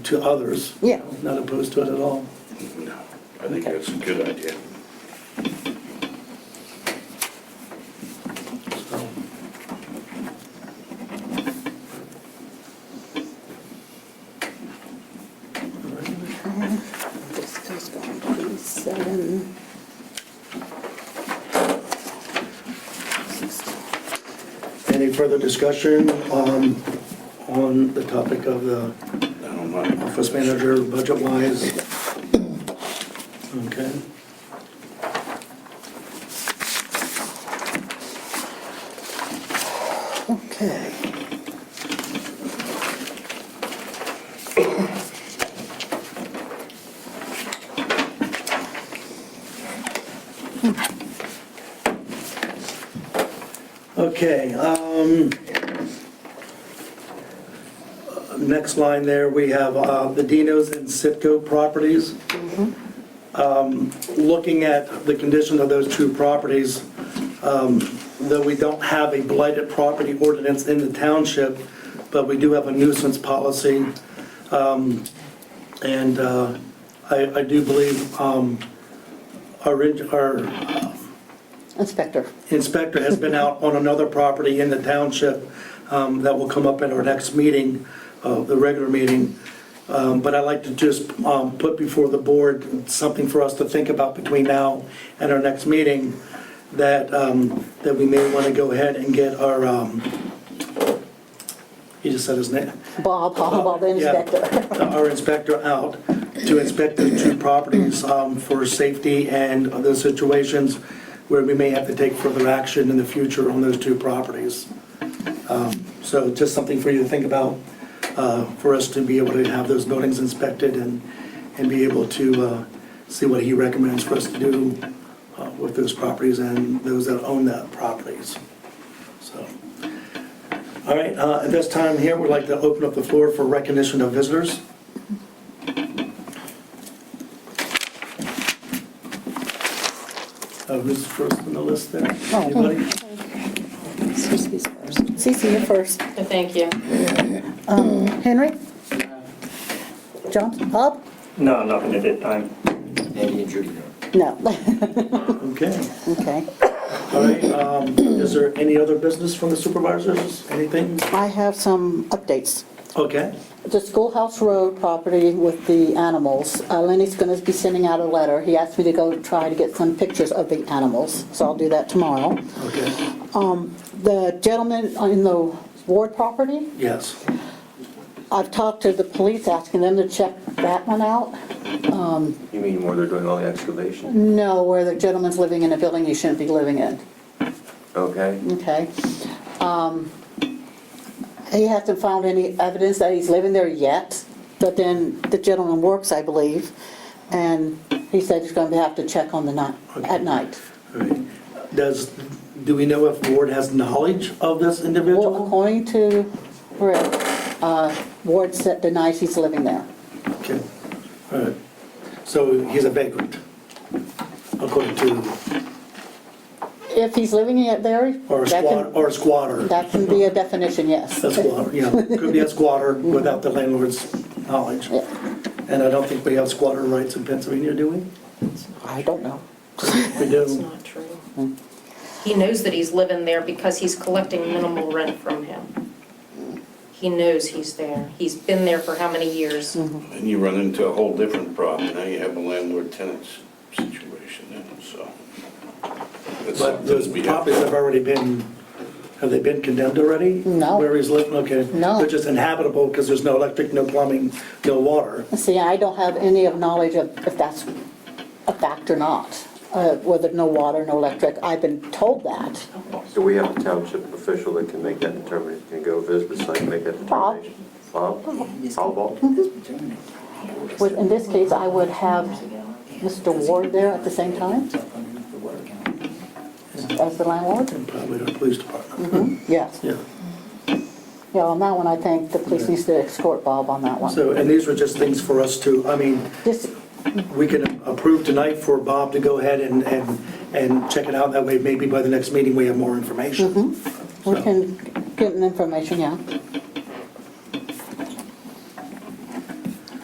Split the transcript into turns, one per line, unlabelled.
to others.
Yeah.
Not opposed to it at all.
No, I think that's a good idea.
So,
This goes back to these seven.
Any further discussion um, on the topic of the
I don't know.
office manager budget-wise? Okay.
Okay.
Okay, um, next line there, we have uh, the Dinos and Sitco properties. Um, Looking at the condition of those two properties, um, though we don't have a blighted property ordinance in the township, but we do have a nuisance policy. Um, And uh, I, I do believe um, our, in- our
Inspector,
inspector has been out on another property in the township um, that will come up at our next meeting, uh, the regular meeting. Um, But I'd like to just um, put before the board something for us to think about between now and our next meeting, that, um, that we may want to go ahead and get our, um, he just said his name,
Bob, Bob, the
yeah,
inspector.
Our inspector out to inspect the two properties um, for safety and other situations where we may have to take further action in the future on those two properties. Um, So just something for you to think about, uh, for us to be able to have those buildings inspected and, and be able to uh, see what he recommends for us to do uh, with those properties and those that own that properties. So. All right, uh, at this time here, we'd like to open up the floor for recognition of visitors. Uh, Who's first on the list there? Anybody?
Cece's first. Cece, you're first.
Thank you.
Henry? John, Bob?
No, nothing at that time.
Andy and Judy.
No.
Okay,
Okay.
all right, um, is there any other business from the supervisors, anything?
I have some updates.
Okay,
The Schoolhouse Road property with the animals, uh, Lenny's going to be sending out a letter. He asked me to go try to get some pictures of the animals, so I'll do that tomorrow.
okay,
The gentleman in the Ward property,
yes,
I've talked to the police, asking them to check that one out.
You mean where they're doing all the excavation?
No, where the gentleman's living in a building he shouldn't be living in,
Okay.
okay? Um, He hasn't found any evidence that he's living there yet, but then the gentleman works, I believe, and he said he's gonna have to check on the night, at night.
all right. Does, do we know if Ward has knowledge of this
Well,
individual?
according to Rick, uh, Ward said denies he's living there.
Okay, all right, so he's a vagrant, according to
If he's living in there,
Or a
that
squatter,
can,
or a squatter.
that can be a definition, yes.
A squatter, yeah, could be a squatter without the landlord's knowledge.
Mm-hmm. Yeah.
And I don't think we have squatter rights in Pennsylvania, do we?
I don't know.
We
That's
do.
not true. He knows that he's living there because he's collecting minimal rent from him. He knows he's there. He's been there for how many years?
And you run into a whole different problem. Now you have a landlord-tenant situation then, so. That's
But
something
those
we have-
properties have already been, have they been condemned already?
No.
Where he's living, okay.
No.
They're just inhabitable because there's no electric, no plumbing, no water.
See, I don't have any of knowledge of if that's a fact or not, uh, whether no water, no electric. I've been told that.
So we have a township official that can make that determination, can go visit the site, make that
Bob.
determination? Bob? Paul Bob?
Would- In this case, I would have Mr. Mm-hmm. Ward there at the same time as the landlord?
Probably the police
Mm-hmm.
department.
Yes.
Yeah.
Yeah, on that one, I think the police needs to escort Bob on that one.
So, and these were just things for us to, I mean,
This,
we can approve tonight for Bob to go ahead and, and, and check it
Mm-hmm.
out. That way, maybe by the next meeting, we have more information.
we can get an information, yeah.